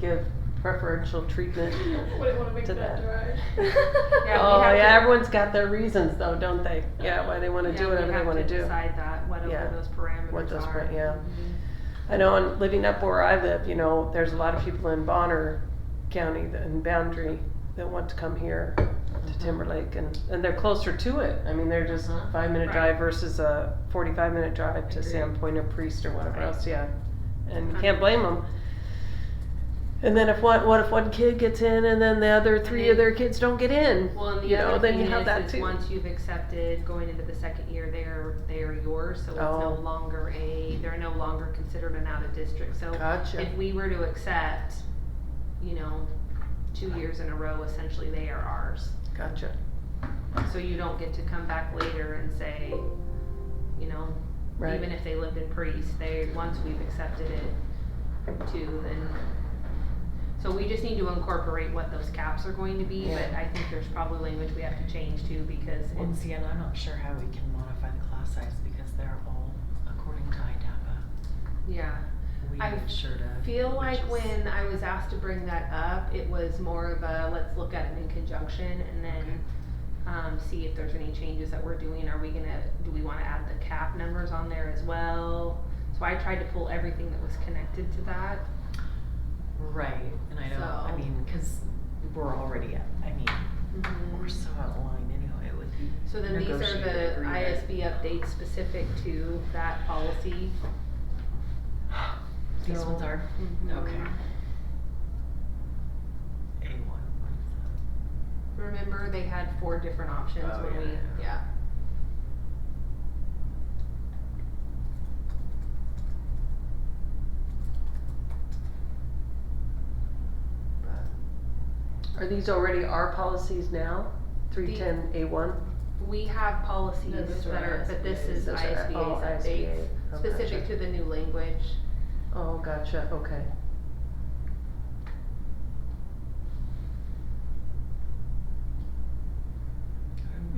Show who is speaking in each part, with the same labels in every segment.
Speaker 1: give preferential treatment.
Speaker 2: Wouldn't want to make
Speaker 1: To
Speaker 2: that dry.
Speaker 3: Yeah, we
Speaker 1: oh
Speaker 3: have
Speaker 1: yeah,
Speaker 3: to-
Speaker 1: everyone's got their reasons though, don't they? Yeah, why they want to
Speaker 3: Yeah,
Speaker 1: do
Speaker 3: we
Speaker 1: whatever they
Speaker 3: have
Speaker 1: want to do.
Speaker 3: Decide that, whatever
Speaker 1: Yeah.
Speaker 3: those parameters
Speaker 1: What those
Speaker 3: are.
Speaker 1: pra- yeah. I know, in living up where I live, you know, there's a lot of people in Bonner County that- and Boundary that want to come here
Speaker 3: Mm-hmm.
Speaker 1: to Timberlake, and and they're closer to it. I mean, they're just
Speaker 4: Uh-huh.
Speaker 1: five minute
Speaker 3: Right.
Speaker 1: drive versus a forty five minute drive to
Speaker 4: Agreed.
Speaker 1: Sandpoint or Priest or whatever
Speaker 3: Right.
Speaker 1: else. Yeah, and you can't blame them. And then if one, what if one kid gets in, and then the other three of
Speaker 3: they-
Speaker 1: their kids don't get in?
Speaker 3: Well, and the
Speaker 1: You
Speaker 3: other
Speaker 1: know, then
Speaker 3: thing
Speaker 1: you have
Speaker 3: is,
Speaker 1: that
Speaker 3: is
Speaker 1: too.
Speaker 3: once you've accepted going into the second year, they're they're yours, so it's
Speaker 1: Oh.
Speaker 3: no longer a they're no longer considered an out of district. So
Speaker 1: Gotcha.
Speaker 3: if we were to accept, you know, two years in a row, essentially they are ours.
Speaker 1: Gotcha.
Speaker 3: So you don't get to come back later and say, you know,
Speaker 1: Right.
Speaker 3: even if they lived in Priest, they once we've accepted it too, then. So we just need to incorporate what those caps are going to be, but I think there's probably language we have to change too because
Speaker 4: And
Speaker 3: it's,
Speaker 4: see, and I'm not sure how we can modify the class size because they're all according to IDAPA.
Speaker 3: yeah.
Speaker 4: We
Speaker 3: I
Speaker 4: have sure to.
Speaker 3: I feel like
Speaker 4: which is-
Speaker 3: when I was asked to bring that up, it was more of a let's look at it in conjunction and then um, see if there's any changes that we're doing. Are we gonna, do we wanna add the cap numbers on there as well? So I tried to pull everything that was connected to that.
Speaker 4: Right, and I don't, I
Speaker 3: So-
Speaker 4: mean, cause we're already, at- I mean, we're so out of line anyway, it would be.
Speaker 3: So then these are
Speaker 4: negotiated
Speaker 3: the
Speaker 4: agreement.
Speaker 3: ISB updates specific to that policy.
Speaker 4: These
Speaker 3: So-
Speaker 4: ones are,
Speaker 1: Mm-hmm.
Speaker 4: okay. A one.
Speaker 3: Remember, they had four different options
Speaker 4: Oh,
Speaker 3: when
Speaker 4: yeah,
Speaker 3: we, yeah.
Speaker 1: Are these already our policies now? Three ten A one.
Speaker 3: We have policies
Speaker 1: No, those are
Speaker 3: that are, but this
Speaker 1: ISBAs.
Speaker 3: is
Speaker 1: Those are-
Speaker 3: ISBA's
Speaker 1: oh,
Speaker 3: updates,
Speaker 1: ISBA. Oh,
Speaker 3: specific
Speaker 1: gotcha.
Speaker 3: to the new language.
Speaker 1: Oh, gotcha. Okay.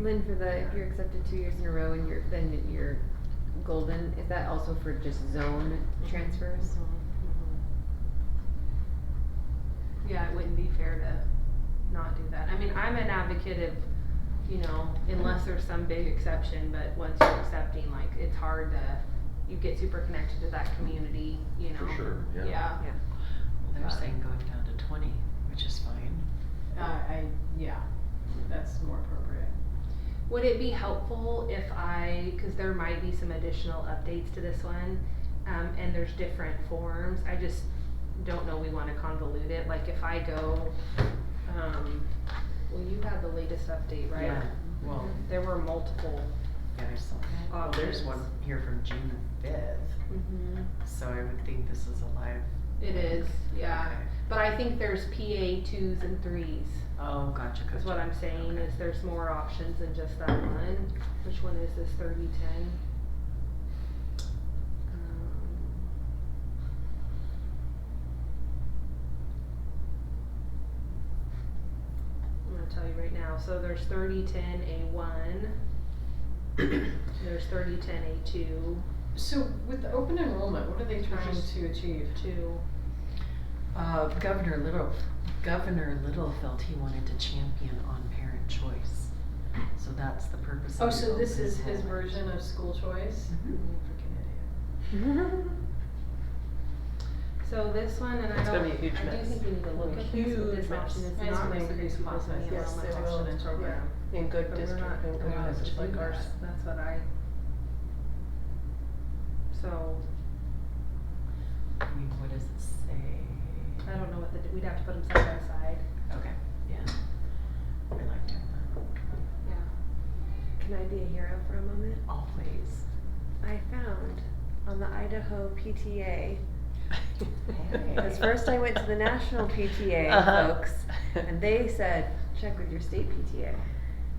Speaker 5: Lynn, for the, if you're accepted two years in a row and you're, then you're golden, is that also for just zone transfers?
Speaker 3: Yeah, it wouldn't be fair to not do that. I mean, I'm an advocate of, you know, unless there's some big exception, but once you're accepting, like, it's hard to, you get super connected to that community, you know?
Speaker 6: For sure, yeah.
Speaker 3: Yeah,
Speaker 4: Well, they're
Speaker 3: Got it.
Speaker 4: saying going down to twenty, which is fine.
Speaker 2: Uh, I, yeah, that's more appropriate.
Speaker 3: Would it be helpful if I, because there might be some additional updates to this one, um, and there's different forms, I just don't know we wanna convolute it, like if I go, um, well, you had the latest update, right? Mm-hmm.
Speaker 4: Yeah, well,
Speaker 3: There were multiple.
Speaker 4: yeah, there's some, well, there's one
Speaker 3: Options.
Speaker 4: here from June fifth,
Speaker 2: Mm-hmm.
Speaker 4: so I would think this is a live.
Speaker 3: It is, yeah,
Speaker 4: Okay.
Speaker 3: but I think there's PA twos and threes,
Speaker 4: Oh, gotcha, gotcha.
Speaker 3: is what I'm saying, is there's more options than just that one. Which one is this thirty ten? Um, I'm gonna tell you right now, so there's thirty ten A one. There's thirty ten A two,
Speaker 2: So with the open enrollment, what are they trying
Speaker 3: Just-
Speaker 2: to achieve?
Speaker 3: two.
Speaker 4: Uh, Governor Little, Governor Littlefeld, he wanted to champion on parent choice. So that's the purpose of.
Speaker 2: Oh,
Speaker 4: the
Speaker 2: so this
Speaker 4: open
Speaker 2: is his
Speaker 4: enrollment.
Speaker 2: version of school choice?
Speaker 4: Mhm.
Speaker 2: Freaking idiot.
Speaker 3: So this one, and I
Speaker 1: It's gonna
Speaker 3: don't, I
Speaker 1: be a huge
Speaker 3: do
Speaker 1: mess.
Speaker 3: think we need to look at this, but
Speaker 1: Huge
Speaker 3: this option is
Speaker 2: And it's
Speaker 3: not
Speaker 2: gonna
Speaker 3: reciprocal
Speaker 2: increase class
Speaker 3: in the
Speaker 2: size. Yes,
Speaker 3: enrollment
Speaker 2: it will.
Speaker 3: option program.
Speaker 1: In good
Speaker 3: But we're
Speaker 1: district,
Speaker 3: not-
Speaker 1: in
Speaker 4: we're
Speaker 1: good
Speaker 4: not
Speaker 1: district
Speaker 4: doing
Speaker 1: like ours.
Speaker 4: that.
Speaker 3: That's what I. So,
Speaker 4: I mean, what does it say?
Speaker 3: I don't know what the, we'd have to put them side by side.
Speaker 2: Uh,
Speaker 4: Okay, yeah. I like doing
Speaker 5: Can I be a hero for a moment?
Speaker 4: that, always.
Speaker 5: I found on the Idaho
Speaker 4: Hey.
Speaker 5: PTA, because first I went to the national PTA
Speaker 1: Uh-huh.
Speaker 5: folks, and they said, check with your state PTA.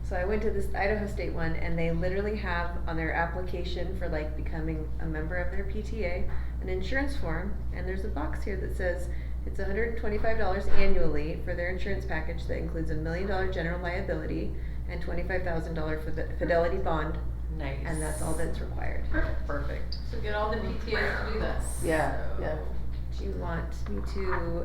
Speaker 5: So I went to this Idaho State one, and they literally have on their application for like becoming a member of their PTA, an insurance form, and there's a box here that says it's hundred and twenty-five dollars annually for their insurance package that includes a million dollar general liability and twenty-five thousand dollar fidelity bond,
Speaker 4: Nice.
Speaker 5: and that's all that's required.
Speaker 4: Perfect.
Speaker 2: So get all the PTAs to do this.
Speaker 1: Yeah, yeah.
Speaker 5: Do you want me to